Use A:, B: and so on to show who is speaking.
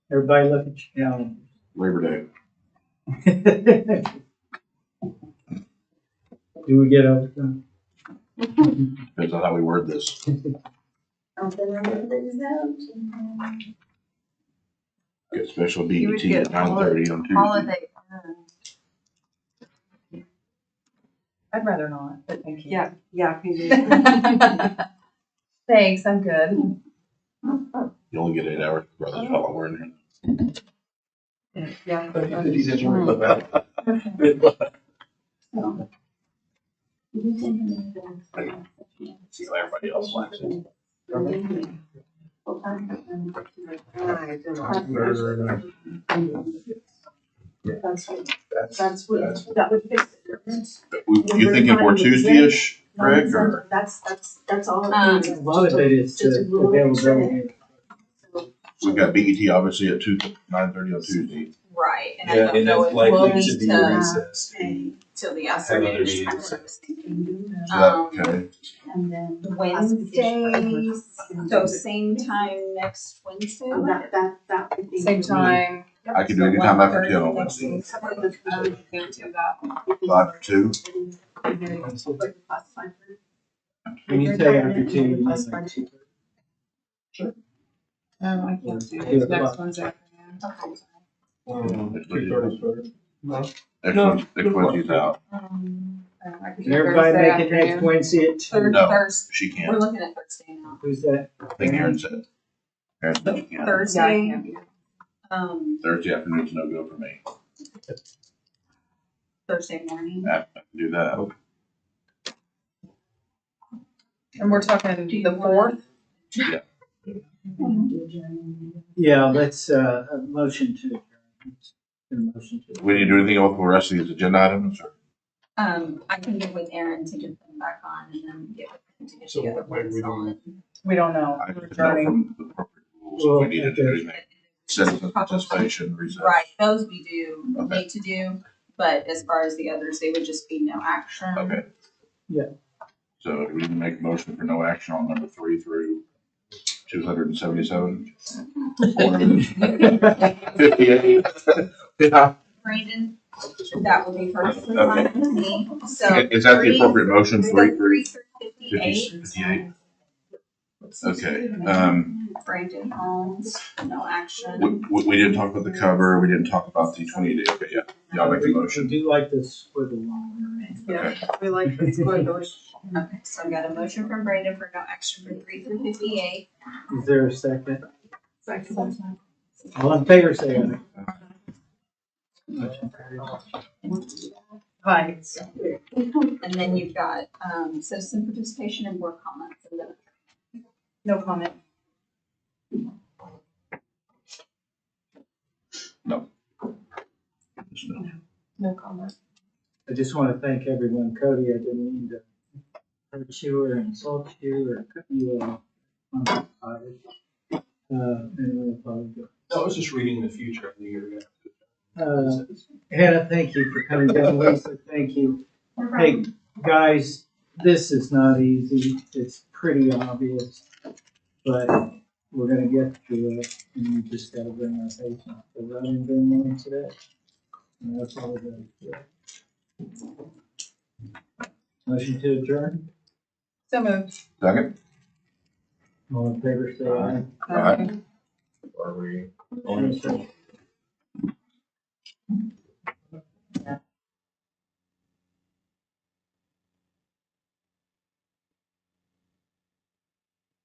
A: Everybody look at your calendar.
B: Labor Day.
A: Do we get uh, overtime?
B: Depends on how we word this. Get special
C: You would
B: BET
C: get
B: at nine thirty on Tuesday.
C: Holiday. um, I'd rather not, but thank you.
D: Yeah, yeah, can do.
C: Thanks, I'm good.
B: You only get eight hours, brother, how long we're in here.
D: Yeah.
E: He didn't worry about that.
C: Okay.
B: See how everybody else likes it.
E: That's-
D: That's
E: that's-
D: what, that would fix it.
B: But we- You thinking more Tuesday-ish, Rick, or?
D: That's, that's, that's all. it
C: Um,
D: is.
A: A lot of it uh, is
D: Just a
A: the
D: rule.
A: availability.
D: So,
B: We've got BET obviously at two, nine thirty on Tuesday.
C: Right, and I
E: Yeah,
C: don't
E: and
C: know
E: that's
C: if we'll uh,
E: likely should
C: need
E: be a
C: to,
E: recess.
D: okay,
C: till the
E: Have other
C: afternoon. Um, is kind of what
E: meetings.
C: I was thinking.
D: can do that.
B: Is that
C: Um,
B: okay?
D: And then.
C: Wednesdays, so same time next Wednesday?
D: And That, that, that would be.
C: Same time.
B: I could do any time after ten on Wednesday.
C: Um, can't do that.
B: Five to two,
A: When you say after two, you mean like two
C: Um, I can't do
A: Two
C: it, next
A: o'clock.
C: Wednesday
B: Next
A: thirty
B: Wednesday.
A: first?
B: next
E: No,
B: Wednesday, next Wednesday's out,
C: afternoon. Um, I
A: Can
C: could do
A: everybody
C: Thursday
A: make it next
C: afternoon.
A: Wednesday at two?
C: Third,
B: No.
C: Thursday,
B: she
C: we're
B: can't,
C: looking at Thursday now.
A: Who's that?
B: I think Aaron said. Aaron said she can't,
C: Thursday, um,
B: Thursday afternoon's no good for me,
C: Thursday morning.
B: I can do that.
C: And we're talking
D: Do you
C: the
D: want-
C: fourth?
A: Yeah, let's, uh, a motion to adjourn. A motion to.
B: We need to do anything else for the rest of these agenda items, or?
C: Um, I can get with Aaron to get them back on and then get with him to get
E: So
C: the other
E: what way
C: ones
E: we doing
C: on.
D: We don't know.
B: I just know from the appropriate rules
A: Well,
B: if we needed to do
A: okay.
B: anything. Citizen participation, recess.
C: Right, those we do
B: Okay.
C: need to do, but as far as the others, they would just be no action.
B: Okay.
A: Yeah.
B: So we can make a motion for no action on number three through two hundred and seventy-seven. Fifty-eight. Yeah.
C: Brandon, that will be first.
B: Okay.
C: Me, So.
B: Is that the
C: three-
B: appropriate motion, three through
C: Three through
B: fifty-
C: fifty-eight,
B: fifty-eight? Okay, um,
C: Brandon Holmes, no
B: we,
C: action.
B: we, we didn't talk about the cover, we didn't talk about the twenty day, but yeah, y'all make the motion.
A: Do like this for the long.
D: Yeah, we like the squigglers.
C: Okay, so I've got a motion from Brandon for no action for three through fifty-eight.
A: Is there a second?
D: Second.
A: All in favor, say aye. Motion carries.
D: Vines.
C: And then you've got, um, citizen participation and board comments. and then- No comment. No comment.
A: I just want to thank everyone. Cody, I didn't mean to hurt you or insult you or cut you off. I'm sorry. Uh, and I apologize.
E: No, I was just reading the future of the year.
A: Uh, Hannah, thank you for coming down. Lisa, thank you. Hey, guys, this is not easy. It's pretty obvious. But we're gonna get through it and we just gotta bring our patience. Cause I didn't bring mine today. And that's all we're gonna do. Motion to adjourn.
C: So moved.
B: Second?
A: All in favor, say aye.
B: Aye.
E: Are we?
A: Aye.